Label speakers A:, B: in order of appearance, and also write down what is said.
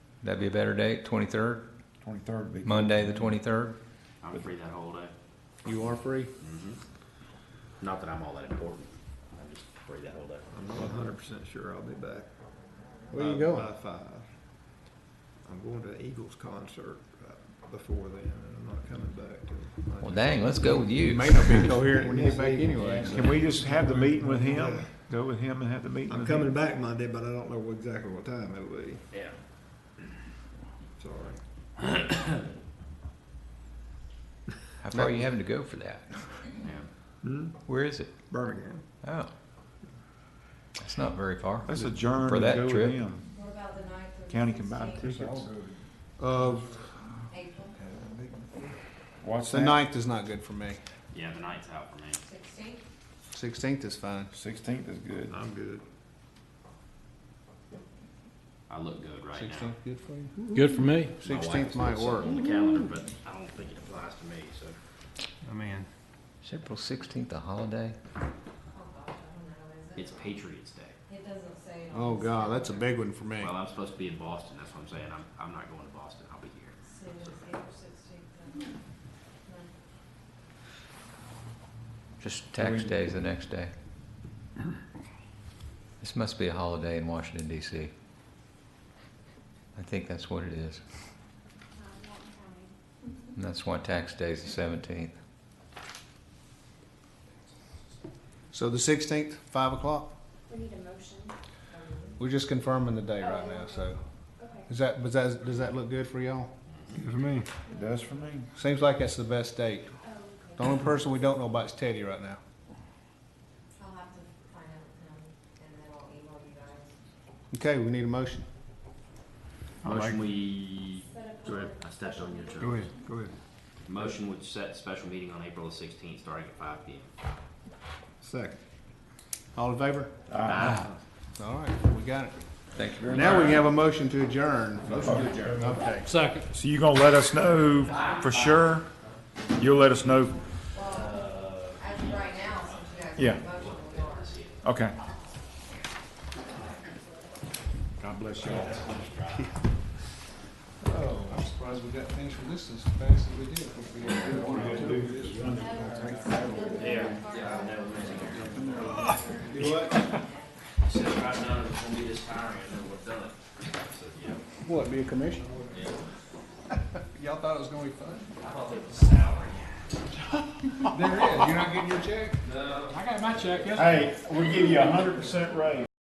A: That'd be a better date, twenty-third,
B: Twenty-third would be.
A: Monday, the twenty-third?
C: I'm free that whole day. Mm-hmm.
D: You are free?
C: Not that I'm all that important. I'm just free that whole day.
E: I'm not hundred percent sure I'll be back.
D: Where you
E: by-
D: going?
E: By five. I'm going to the Eagles concert uh, before then, and I'm not coming back till.
A: Well,
E: Monday.
A: dang, let's go with
F: It
A: you.
F: may not be coherent when you get back anyway.
B: Yeah.
F: Can we just have the meeting with him? Go with him and have the meeting
E: I'm
F: with him?
E: coming back Monday, but I don't know what- exactly what time it'll be,
C: Yeah.
E: sorry.
A: How far are you having to go for that?
C: Yeah.
E: Hmm?
A: Where is it?
E: Birmingham.
A: Oh. That's not very far.
F: Let's adjourn
A: For
F: and
A: that
F: go with
A: trip.
F: him.
G: What about the ninth or?
F: County can buy
G: 16th,
F: tickets.
D: Of,
G: April
B: What's
D: the
B: that?
D: ninth is not good for me.
C: Yeah, the night's out for me.
G: sixteenth?
D: Sixteenth is fine.
B: Sixteenth is good.
E: I'm good.
C: I look good right
D: Sixteenth good for you?
H: Good for me.
C: now. My wife
D: Sixteenth
C: has
D: might
C: put something
D: work.
C: On the calendar, but I don't think it applies to me, so.
F: I mean,
A: Is April sixteenth a holiday?
G: Oh, gosh, I don't know, is
C: It's
G: it?
C: Patriots Day.
G: It doesn't say. it on
D: Oh,
G: the
D: God,
G: calendar.
D: that's a big one for me.
C: Well, I'm supposed to be in Boston. That's what I'm saying. I'm, I'm not going to Boston. I'll be here.
G: So it's April sixteenth.
A: Just tax day's the next day. This must be a holiday in Washington DC. I think that's what it is. And that's why tax day's the seventeenth.
D: So the sixteenth, five o'clock?
I: We need a motion.
D: We're just confirming the day right now, so.
I: Okay.
D: Is that, was that, does that look good for y'all?
F: for me.
B: It does for me.
D: Seems like that's the best date.
I: Oh,
D: The only person we don't know about is Teddy right now.
G: I'll have to find out with him and then I'll email you guys.
D: Okay, we need a motion.
C: Motion we,
I: Set up
C: go ahead.
I: a-
C: I stepped on your
F: Go
C: turn.
F: ahead, go ahead.
C: Motion would set special meeting on April the sixteenth, starting at five P M.
D: Second. All in favor? Ah.
C: Aye.
D: All right, we got it.
A: Thank you very
D: Now we can have a motion to adjourn. Okay.
H: Second.
F: So you gonna let us know for sure? You'll let us know?
G: Well, as of right now, since you guys.
F: Yeah.
G: have a motion, we are.
F: Okay.
B: God bless y'all.
D: Oh, I'm surprised we got things from this as fast as we did. You what?
C: Since I've done it, it's gonna be this tiring, I know we've done it. So, yeah.
D: What, be a commission? Y'all thought it was gonna be fun?
C: I thought it was salary.
D: There is, you're not getting your check?
H: I got my check.
F: Hey, we give you a hundred percent raise.